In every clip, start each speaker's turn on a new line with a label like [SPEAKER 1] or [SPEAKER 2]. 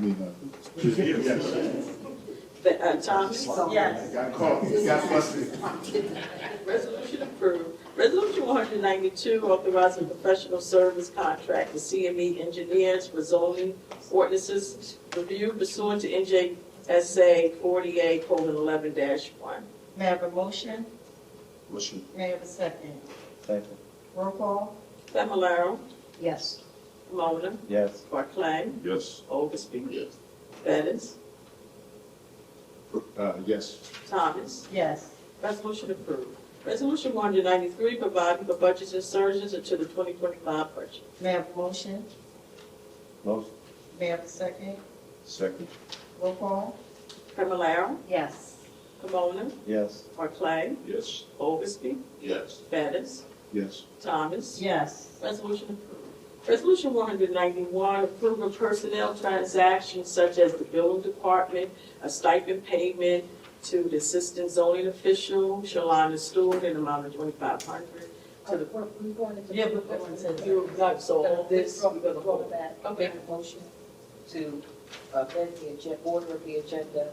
[SPEAKER 1] be no.
[SPEAKER 2] But, uh, Johnson? Yes.
[SPEAKER 1] Got caught, got busted.
[SPEAKER 2] Resolution approved. Resolution one hundred ninety-two, authorizing professional service contract with CME E engineers for zoning ordinances review pursuant to NJSA forty-eight colon eleven one.
[SPEAKER 3] May I have a motion?
[SPEAKER 1] Motion.
[SPEAKER 3] May I have a second?
[SPEAKER 4] Second.
[SPEAKER 3] Roll call?
[SPEAKER 2] Familar,
[SPEAKER 3] Yes.
[SPEAKER 2] Camona,
[SPEAKER 4] Yes.
[SPEAKER 2] Barclay,
[SPEAKER 5] Yes.
[SPEAKER 2] Oldesty. Yes. Bettis,
[SPEAKER 1] Uh, yes.
[SPEAKER 2] Thomas.
[SPEAKER 3] Yes.
[SPEAKER 2] Resolution approved. Resolution one hundred ninety-three, providing for budget insertions into the twenty twenty-five budget.
[SPEAKER 3] May I have a motion?
[SPEAKER 4] Motion.
[SPEAKER 3] May I have a second?
[SPEAKER 1] Second.
[SPEAKER 3] Roll call?
[SPEAKER 2] Familar,
[SPEAKER 3] Yes.
[SPEAKER 2] Camona,
[SPEAKER 4] Yes.
[SPEAKER 2] Barclay,
[SPEAKER 5] Yes.
[SPEAKER 2] Oldesty. Yes. Bettis,
[SPEAKER 1] Yes.
[SPEAKER 2] Thomas.
[SPEAKER 3] Yes.
[SPEAKER 2] Resolution approved. Resolution one hundred ninety-one, approving personnel transactions such as the building department, a stipend payment to the assistant zoning official, Shalana Stewart, in amount of twenty-five hundred to the.
[SPEAKER 6] We're we're going into.
[SPEAKER 2] Yeah, we're going to- You're right, so all this, we're gonna
[SPEAKER 6] Roll
[SPEAKER 2] hold.
[SPEAKER 6] back.
[SPEAKER 2] Okay.
[SPEAKER 6] Make a Motion to amend the agenda, order of the agenda.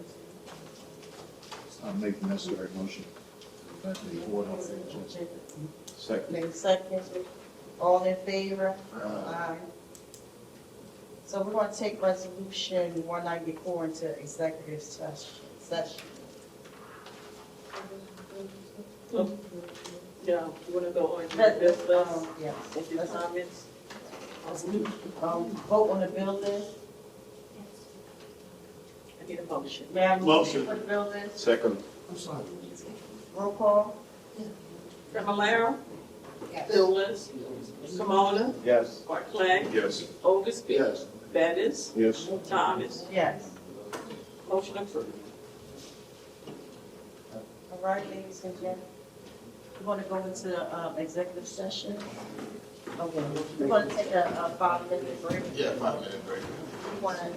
[SPEAKER 1] I'll make the necessary motion. That the order of the agenda. Second.
[SPEAKER 3] May I have a second? All in favor?
[SPEAKER 1] Uh,
[SPEAKER 3] Aye. So we're going to take resolution one ninety-four into executive session. Session.
[SPEAKER 2] Yeah, you wanna go on to
[SPEAKER 3] Let-
[SPEAKER 2] this list
[SPEAKER 3] um, Yes.
[SPEAKER 2] with your comments?
[SPEAKER 3] Um, vote on the building.
[SPEAKER 2] I need a motion.
[SPEAKER 3] May I have a motion
[SPEAKER 5] Motion.
[SPEAKER 3] for the building?
[SPEAKER 1] Second.
[SPEAKER 3] Roll call?
[SPEAKER 2] Familar, Phillips, Camona,
[SPEAKER 4] Yes.
[SPEAKER 2] Barclay,
[SPEAKER 5] Yes.
[SPEAKER 2] Augustby. Bettis,
[SPEAKER 1] Yes.
[SPEAKER 2] Thomas,
[SPEAKER 3] Yes.
[SPEAKER 2] motion approved.
[SPEAKER 3] All right, ladies and gentlemen, we want to go into um, executive session. Okay, we want to take a a five-minute break.
[SPEAKER 7] Yeah, five minute break.
[SPEAKER 6] You wanna,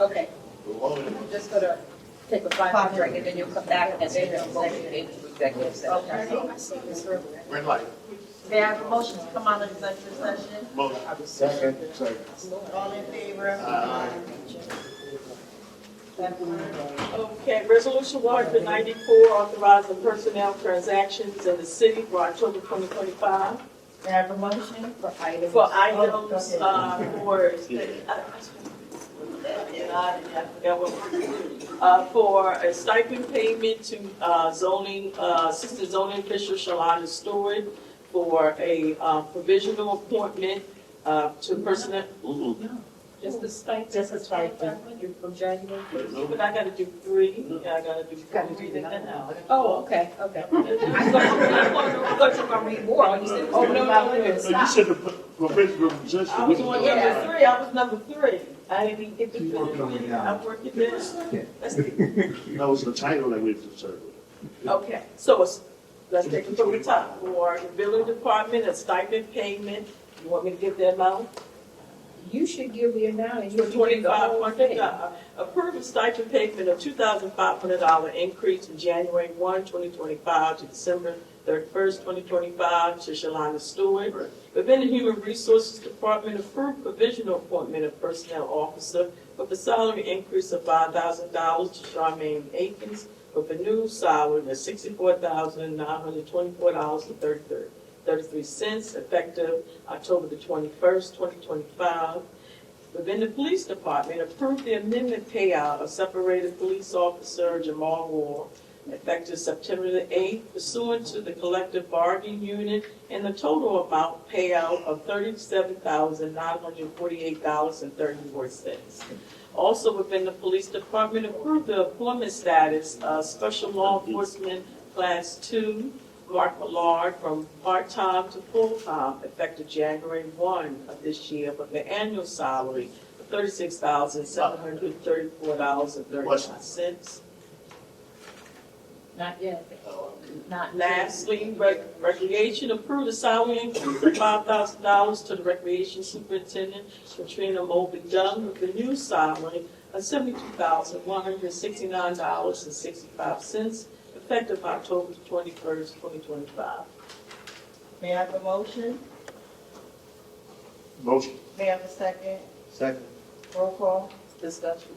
[SPEAKER 6] okay,
[SPEAKER 7] We're all in.
[SPEAKER 6] I'm just gonna take a five minute break and then you'll come back and then we'll go into executive session.
[SPEAKER 3] Okay.
[SPEAKER 7] Red light.
[SPEAKER 3] May I have a motion to come out of executive session?
[SPEAKER 7] Motion.
[SPEAKER 4] Second.
[SPEAKER 1] Second.
[SPEAKER 3] All in favor?
[SPEAKER 7] Aye.
[SPEAKER 2] Okay, resolution one hundred ninety-four, authorizing personnel transactions in the city for October twenty twenty-five
[SPEAKER 3] May I have a motion? Oh,
[SPEAKER 6] For items.
[SPEAKER 2] for items, uh, for, I forgot what- uh, for a stipend payment to, uh, zoning, uh, assistant zoning official Shalonda Stewart for a, uh, provisional appointment, uh, to personnel,
[SPEAKER 6] Just the stipend.
[SPEAKER 3] Just the stipend.
[SPEAKER 6] You're From January.
[SPEAKER 2] but I gotta do three, I gotta do three, and then I'll-
[SPEAKER 6] Oh, okay, okay.
[SPEAKER 2] I thought you were gonna read more.
[SPEAKER 6] Oh, you said, oh, no, no, no,
[SPEAKER 5] You
[SPEAKER 6] stop.
[SPEAKER 5] said the professional position.
[SPEAKER 2] I was on number
[SPEAKER 6] Yeah.
[SPEAKER 2] three, I was number three. I didn't even get to
[SPEAKER 1] Keep
[SPEAKER 2] finish
[SPEAKER 1] working on it
[SPEAKER 2] reading,
[SPEAKER 1] now.
[SPEAKER 2] I'm working this. Let's see.
[SPEAKER 5] That was the title that we deserved.
[SPEAKER 2] Okay, so it's- let's take it from the top. For the building department, a stipend payment, you want me to give that amount?
[SPEAKER 6] You should give me a now and
[SPEAKER 2] For
[SPEAKER 6] you should give the
[SPEAKER 2] twenty-five
[SPEAKER 6] whole
[SPEAKER 2] hundred
[SPEAKER 6] thing.
[SPEAKER 2] dollars. Approve a stipend payment of two thousand five hundred dollar increase from January one, twenty twenty-five to December thirty-first, twenty twenty-five to Shalana Stewart.
[SPEAKER 7] Right.
[SPEAKER 2] Within the Human Resources Department, approve provisional appointment of personnel officer with a salary increase of five thousand dollars to Charmaine Akins with a new salary of sixty-four thousand nine hundred twenty-four dollars and thirty-three, thirty-three cents effective October the twenty-first, twenty twenty-five. Within the Police Department, approve the amendment payout of separated police officer Jamal Ward effective September the eighth pursuant to the collective bargaining unit and the total amount payout of thirty-seven thousand nine hundred forty-eight dollars and thirty-four cents. Also within the police department, approve the employment status of special law enforcement class two, Mark Millard, from part-time to full-time, effective January one of this year, with the annual salary of thirty-six thousand seven hundred thirty-four dollars and thirty-nine cents.
[SPEAKER 6] Not yet.
[SPEAKER 7] Oh,
[SPEAKER 6] Not yet.
[SPEAKER 2] Lastly, rec- recreation approved a salary increase of five thousand dollars to the recreation superintendent Katrina Mobley Dunn with a new salary of seventy-two thousand one hundred sixty-nine dollars and sixty-five cents effective October twenty-first, twenty twenty-five.
[SPEAKER 3] May I have a motion?
[SPEAKER 5] Motion.
[SPEAKER 3] May I have a second?
[SPEAKER 4] Second.
[SPEAKER 3] Roll call?
[SPEAKER 2] discussion?